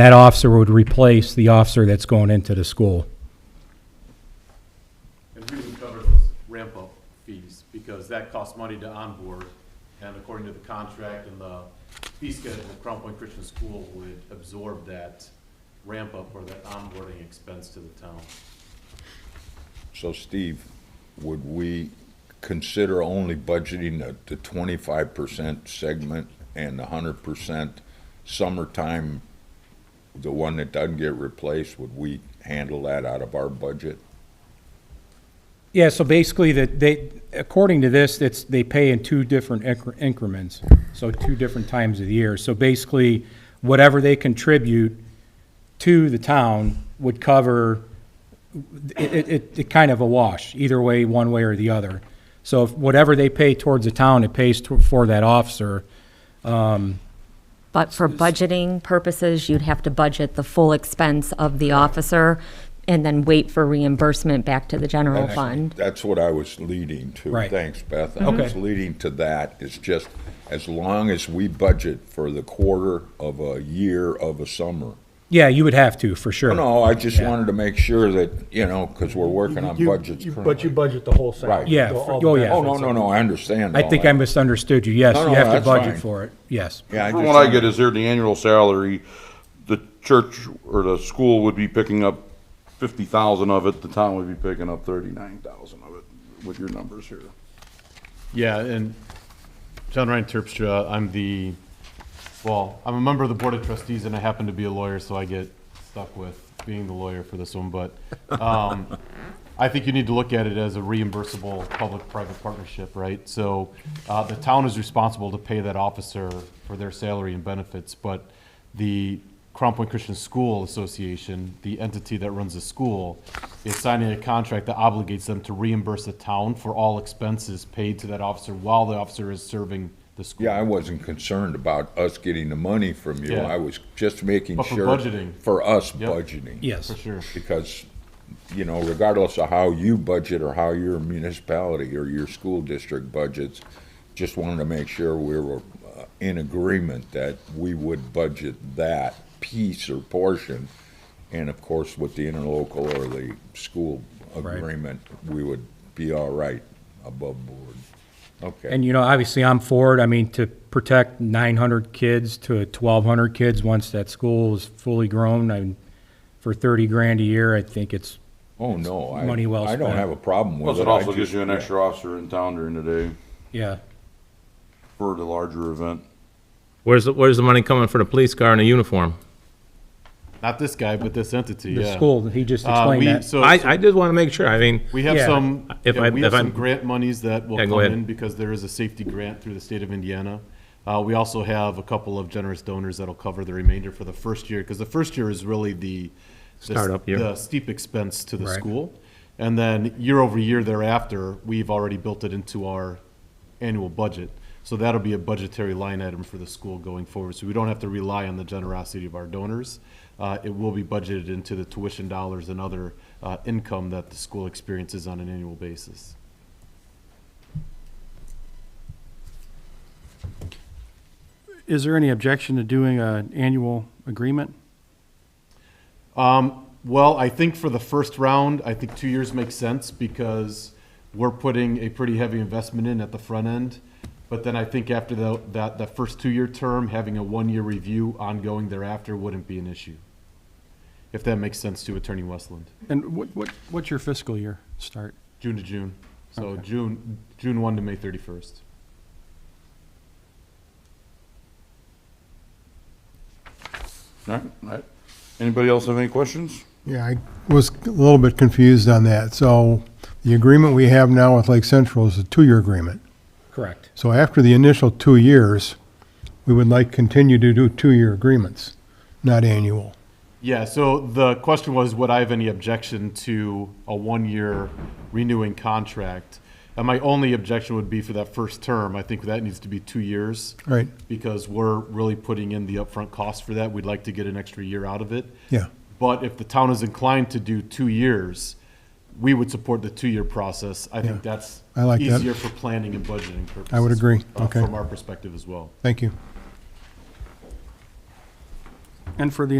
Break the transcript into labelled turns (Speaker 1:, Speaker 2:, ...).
Speaker 1: That officer would replace the officer that's going into the school.
Speaker 2: And we would cover those ramp up fees because that costs money to onboard. And according to the contract and the fee schedule, Crown Point Christian School would absorb that ramp up or that onboarding expense to the town.
Speaker 3: So Steve, would we consider only budgeting the, the twenty-five percent segment and the hundred percent summertime, the one that doesn't get replaced, would we handle that out of our budget?
Speaker 1: Yeah, so basically that they, according to this, it's, they pay in two different incre- increments, so two different times of the year. So basically, whatever they contribute to the town would cover, it, it- it, it kind of a wash, either way, one way or the other. So if whatever they pay towards the town, it pays to- for that officer.
Speaker 4: But for budgeting purposes, you'd have to budget the full expense of the officer and then wait for reimbursement back to the general fund.
Speaker 3: That's what I was leading to.
Speaker 1: Right.
Speaker 3: Thanks, Beth. I was
Speaker 1: Okay.
Speaker 3: leading to that. It's just, as long as we budget for the quarter of a year of a summer.
Speaker 1: Yeah, you would have to, for sure.
Speaker 3: Oh, No, I just wanted to make sure that, you know, because we're working on
Speaker 5: You-
Speaker 3: budgets
Speaker 5: you-
Speaker 3: currently.
Speaker 5: But you budget the whole thing.
Speaker 3: Right.
Speaker 1: Yeah,
Speaker 5: the- all
Speaker 1: for- oh,
Speaker 5: the
Speaker 1: yeah.
Speaker 3: Oh, no,
Speaker 5: benefits.
Speaker 3: no, no, I understand.
Speaker 1: I
Speaker 3: all
Speaker 1: think
Speaker 3: that.
Speaker 1: I misunderstood you. Yes,
Speaker 3: No, no,
Speaker 1: you have to
Speaker 3: that's
Speaker 1: budget
Speaker 3: fine.
Speaker 1: for it, yes.
Speaker 3: Yeah, I
Speaker 6: From
Speaker 3: just
Speaker 6: what I
Speaker 3: wanted-
Speaker 6: get is there, the annual salary, the church or the school would be picking up fifty thousand of it, the town would be picking up thirty-nine thousand of it, with your numbers here.
Speaker 2: Yeah, and John Ryan Terpstra, I'm the, well, I'm a member of the Board of Trustees and I happen to be a lawyer, so I get stuck with being the lawyer for this one, but um, I think you need to look at it as a reimbursable public-private partnership, right? So uh, the town is responsible to pay that officer for their salary and benefits, but the Crown Point Christian School Association, the entity that runs the school, is signing a contract that obligates them to reimburse the town for all expenses paid to that officer while the officer is serving the school.
Speaker 3: Yeah, I wasn't concerned about us getting the money from you.
Speaker 2: Yeah.
Speaker 3: I was just making
Speaker 2: But for
Speaker 3: sure.
Speaker 2: budgeting.
Speaker 3: For us
Speaker 2: Yep.
Speaker 3: budgeting.
Speaker 1: Yes.
Speaker 2: For sure.
Speaker 3: Because, you know, regardless of how you budget or how your municipality or your school district budgets, just wanted to make sure we were uh, in agreement that we would budget that piece or portion. And of course, with the interlocal or the school agreement, we would be all right above board. Okay.
Speaker 1: And, you know, obviously, I'm for it. I mean, to protect 900 kids to 1,200 kids once that school is fully grown, I, for 30 grand a year, I think it's,
Speaker 3: Oh, no. I-
Speaker 1: money well
Speaker 3: I don't
Speaker 1: spent.
Speaker 3: have a problem with it.
Speaker 6: Plus, it
Speaker 3: I
Speaker 6: also
Speaker 3: just-
Speaker 6: gives you an
Speaker 3: yeah.
Speaker 6: extra officer in town during the day
Speaker 1: yeah.
Speaker 6: for the larger event.
Speaker 7: Where's, the- where's the money coming for the police car and the uniform?
Speaker 2: Not this guy, but this entity,
Speaker 1: The
Speaker 2: yeah.
Speaker 1: school, he just
Speaker 2: Uh,
Speaker 1: explained
Speaker 2: we-
Speaker 1: that.
Speaker 2: so-
Speaker 7: I, I just want to make sure, I mean,
Speaker 2: We have
Speaker 1: Yeah.
Speaker 2: some,
Speaker 7: If
Speaker 2: yeah,
Speaker 7: I-
Speaker 2: we
Speaker 7: if
Speaker 2: have some
Speaker 7: I'm-
Speaker 2: grant monies that will
Speaker 7: Yeah, go
Speaker 2: come
Speaker 7: ahead.
Speaker 2: in because there is a safety grant through the state of Indiana. Uh, we also have a couple of generous donors that'll cover the remainder for the first year, because the first year is really the. the s-
Speaker 7: Startup year.
Speaker 2: The steep expense to the
Speaker 1: Right.
Speaker 2: school. And then year over year thereafter, we've already built it into our annual budget. So that'll be a budgetary line item for the school going forward. So we don't have to rely on the generosity of our donors. Uh, It will be budgeted into the tuition dollars and other uh, income that the school experiences on an annual basis.
Speaker 8: Is there any objection to doing an annual agreement?
Speaker 2: Well, I think for the first round, I think two years makes sense because we're putting a pretty heavy investment in at the front end. But then I think after the, that, that first two-year term, having a one-year review ongoing thereafter wouldn't be an issue. If that makes sense to Attorney Westland,
Speaker 8: And what, what, what's your fiscal year start?
Speaker 2: June to June. So June, June one to May thirty-first.
Speaker 6: All right, all right. Anybody else have any questions?
Speaker 9: Yeah, I was a little bit confused on that. So the agreement we have now with Lake Central is a two-year agreement.
Speaker 1: Correct.
Speaker 9: So after the initial two years, we would like continue to do two-year agreements, not annual.
Speaker 2: Yeah, so the question was, would I have any objection to a one-year renewing contract? And my only objection would be for that first term. I think that needs to be two years.
Speaker 9: Right.
Speaker 2: Because we're really putting in the upfront cost for that. We'd like to get an extra year out of it.
Speaker 9: Yeah.
Speaker 2: But if the town is inclined to do two years, we would support the two-year process. I think
Speaker 9: Yeah.
Speaker 2: that's
Speaker 9: I like that.
Speaker 2: easier for planning and budgeting purposes.
Speaker 9: I would agree.
Speaker 2: uh,
Speaker 9: Okay.
Speaker 2: From our perspective as well.
Speaker 9: Thank you.
Speaker 8: And for the